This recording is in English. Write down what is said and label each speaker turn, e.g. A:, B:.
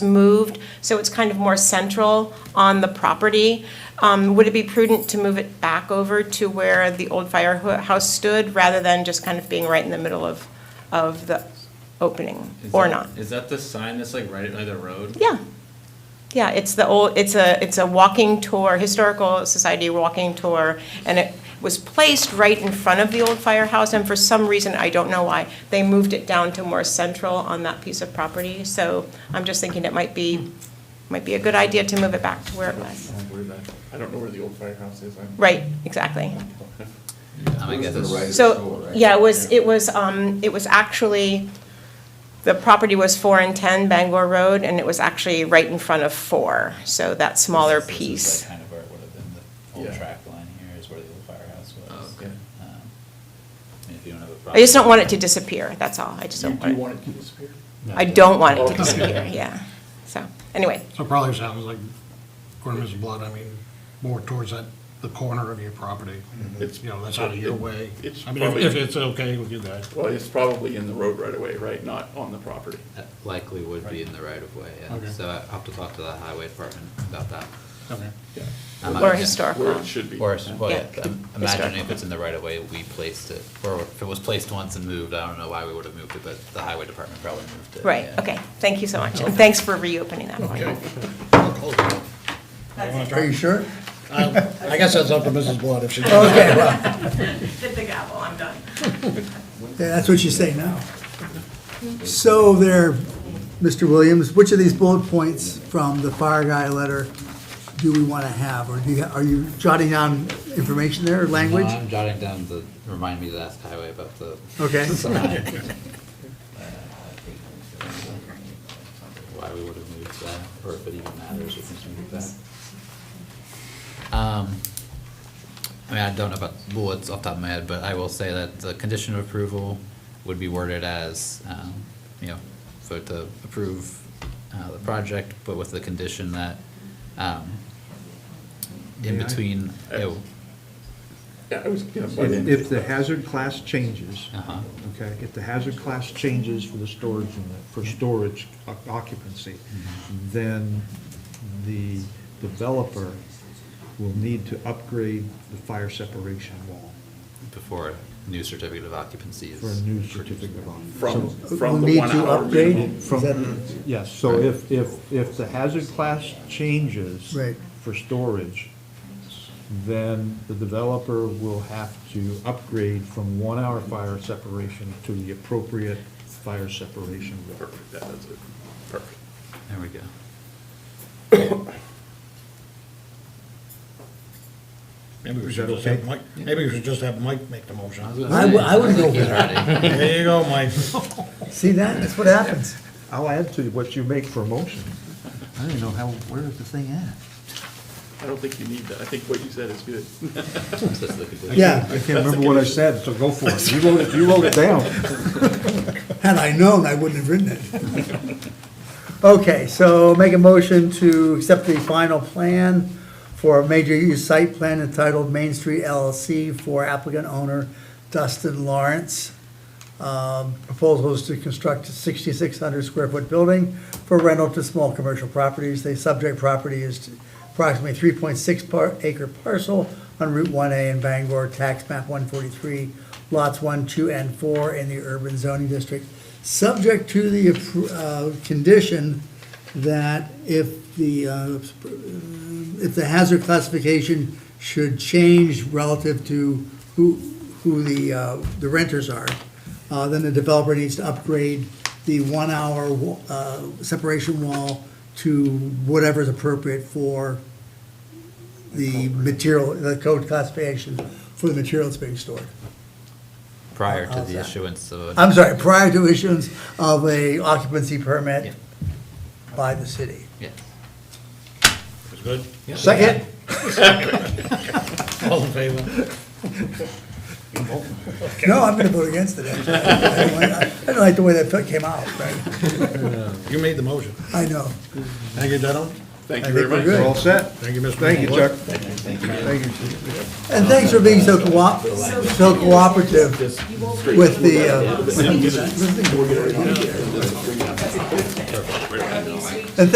A: moved, so it's kind of more central on the property. Um, Would it be prudent to move it back over to where the old firehouse stood, rather than just kind of being right in the middle of, of the opening,
B: Is
A: or
B: that-
A: not?
B: Is that the sign that's like right by the road?
A: Yeah. Yeah, it's the old, it's a, it's a walking tour, Historical Society walking tour, and it was placed right in front of the old firehouse, and for some reason, I don't know why, they moved it down to more central on that piece of property, so I'm just thinking it might be, might be a good idea to move it back to where it was.
C: I don't know where the old firehouse is. I'm-
A: Right, exactly.
D: I guess it's right.
A: So, yeah, it was, it was, um, it was actually, the property was four and ten Bangor Road, and it was actually right in front of four, so that smaller
E: This is- this is
A: piece.
E: like Kind of where it would have been, the
C: Yeah.
E: old track line here is where the old firehouse was.
B: Oh, okay.
E: Um, And if you don't have a problem.
A: I just don't want it to disappear, that's all, I just don't
C: Do you
A: want it,
C: want it to disappear?
A: I don't want it to disappear, yeah. So, anyway,
F: So it probably sounds like, according to Mrs. Blood, I mean, more towards that, the corner of your property.
C: It's-
F: You know, that's out of your way.
C: It's
F: I mean, if-
C: probably-
F: if it's okay with you guys.
C: Well, it's probably in the road right away, right? Not on the property.
D: That Likely would be in the right of way, yeah.
F: Okay.
D: So I'll have to talk to the highway department about that.
F: Okay.
C: Yeah,
D: I'm not
A: or
D: against-
C: Where
A: historical.
C: it should be.
D: Or, it's- well,
A: Yeah.
D: yeah, I'm imagining if it's in the right of way, we placed it, or if it was placed once and moved, I don't know why we would have moved it, but the highway department probably moved it.
A: Right,
D: yeah.
A: okay, thank you so much, and thanks for reopening that one.
G: Are you sure?
F: I guess that's up to Mrs. Blood if she.
G: Okay, well,
A: Did the gavel, I'm done.
G: yeah, that's what you say now. So there, Mr. Williams, which of these bullet points from the fire guy letter do we want to have? Or do you, are you jotting down information there, or language?
C: Uh,
D: I'm jotting down the, remind me to ask highway about the.
G: Okay.
D: sign. Uh, Why we would have moved that, or if it even matters if we moved that. Um, I mean, I don't know about bullets off the top of my head, but I will say that the condition of approval would be worded as, um, you know, vote to approve, uh, the project, but with the condition that, um, in
H: May I? Uh,
D: between, oh,
C: Yeah, I was gonna butt
H: If
C: in.
H: if the hazard class changes,
D: uh-huh.
H: okay, if the hazard class changes for the storage unit, for storage o- occupancy, then the developer will need to upgrade the fire separation wall
D: before a new certificate of occupancy is.
H: for a new certificate of
C: From,
H: occupancy.
C: from
G: We'll
C: the
G: need
C: one
G: to
C: hour.
G: update?
C: minimum.
G: Is
H: So-
G: that-
H: From, yes, so if, if, if the hazard class changes
G: Right.
H: for storage, then the developer will have to upgrade from one-hour fire separation to the appropriate fire separation wall.
C: Perfect, that is it. Perfect.
D: There we go.
F: Maybe we
H: Is
F: should
H: that
F: just have
H: okay?
F: Mike, maybe we should just have Mike make the motion.
G: I would- I would go for
D: that.
F: There you go, Mike.
G: See that? That's what happens.
H: I'll add to what you make for a motion. I don't even know how, where is the thing at?
C: I don't think you need that. I think what you said is good.
G: Yeah,
H: I can't remember what I said, so go for it. You wrote it, you wrote it down.
G: had I known, I wouldn't have written it. Okay, so make a motion to accept the final plan for a major use site plan entitled Main Street LLC for applicant owner Dustin Lawrence. Um, Proposal is to construct a 6,600 square foot building for rental to small commercial properties. The subject property is approximately 3.6 par- acre parcel on Route 1A in Bangor, tax map 143, lots 1, 2, and 4 in the urban zoning district, subject to the appro- uh, condition that if the, uh, if the hazard classification should change relative to who, who the, uh, the renters are, uh, then the developer needs to upgrade the one-hour wa- uh, separation wall to whatever's appropriate for the material, the code classification for the material that's being stored.
D: Prior to
G: How's
D: the
G: that?
D: issuance of.
H: Uh,
D: a-
G: I'm sorry, prior to issuance of a occupancy permit by the city.
D: Yeah.
F: It's good?
G: Second?
F: All in favor?
G: No, I'm gonna vote against it, actually. I don't like- I don't like the way that came out, right?
F: You made the motion.
G: I know.
F: Thank you, gentlemen.
C: Thank
G: I
C: you
G: think
C: very much.
G: we're good.
H: We're all set?
F: Thank you, Mr.
H: Thank you,
F: Blood.
H: Chuck. Thank you.
G: And thanks for being so coop, so cooperative with the, uh,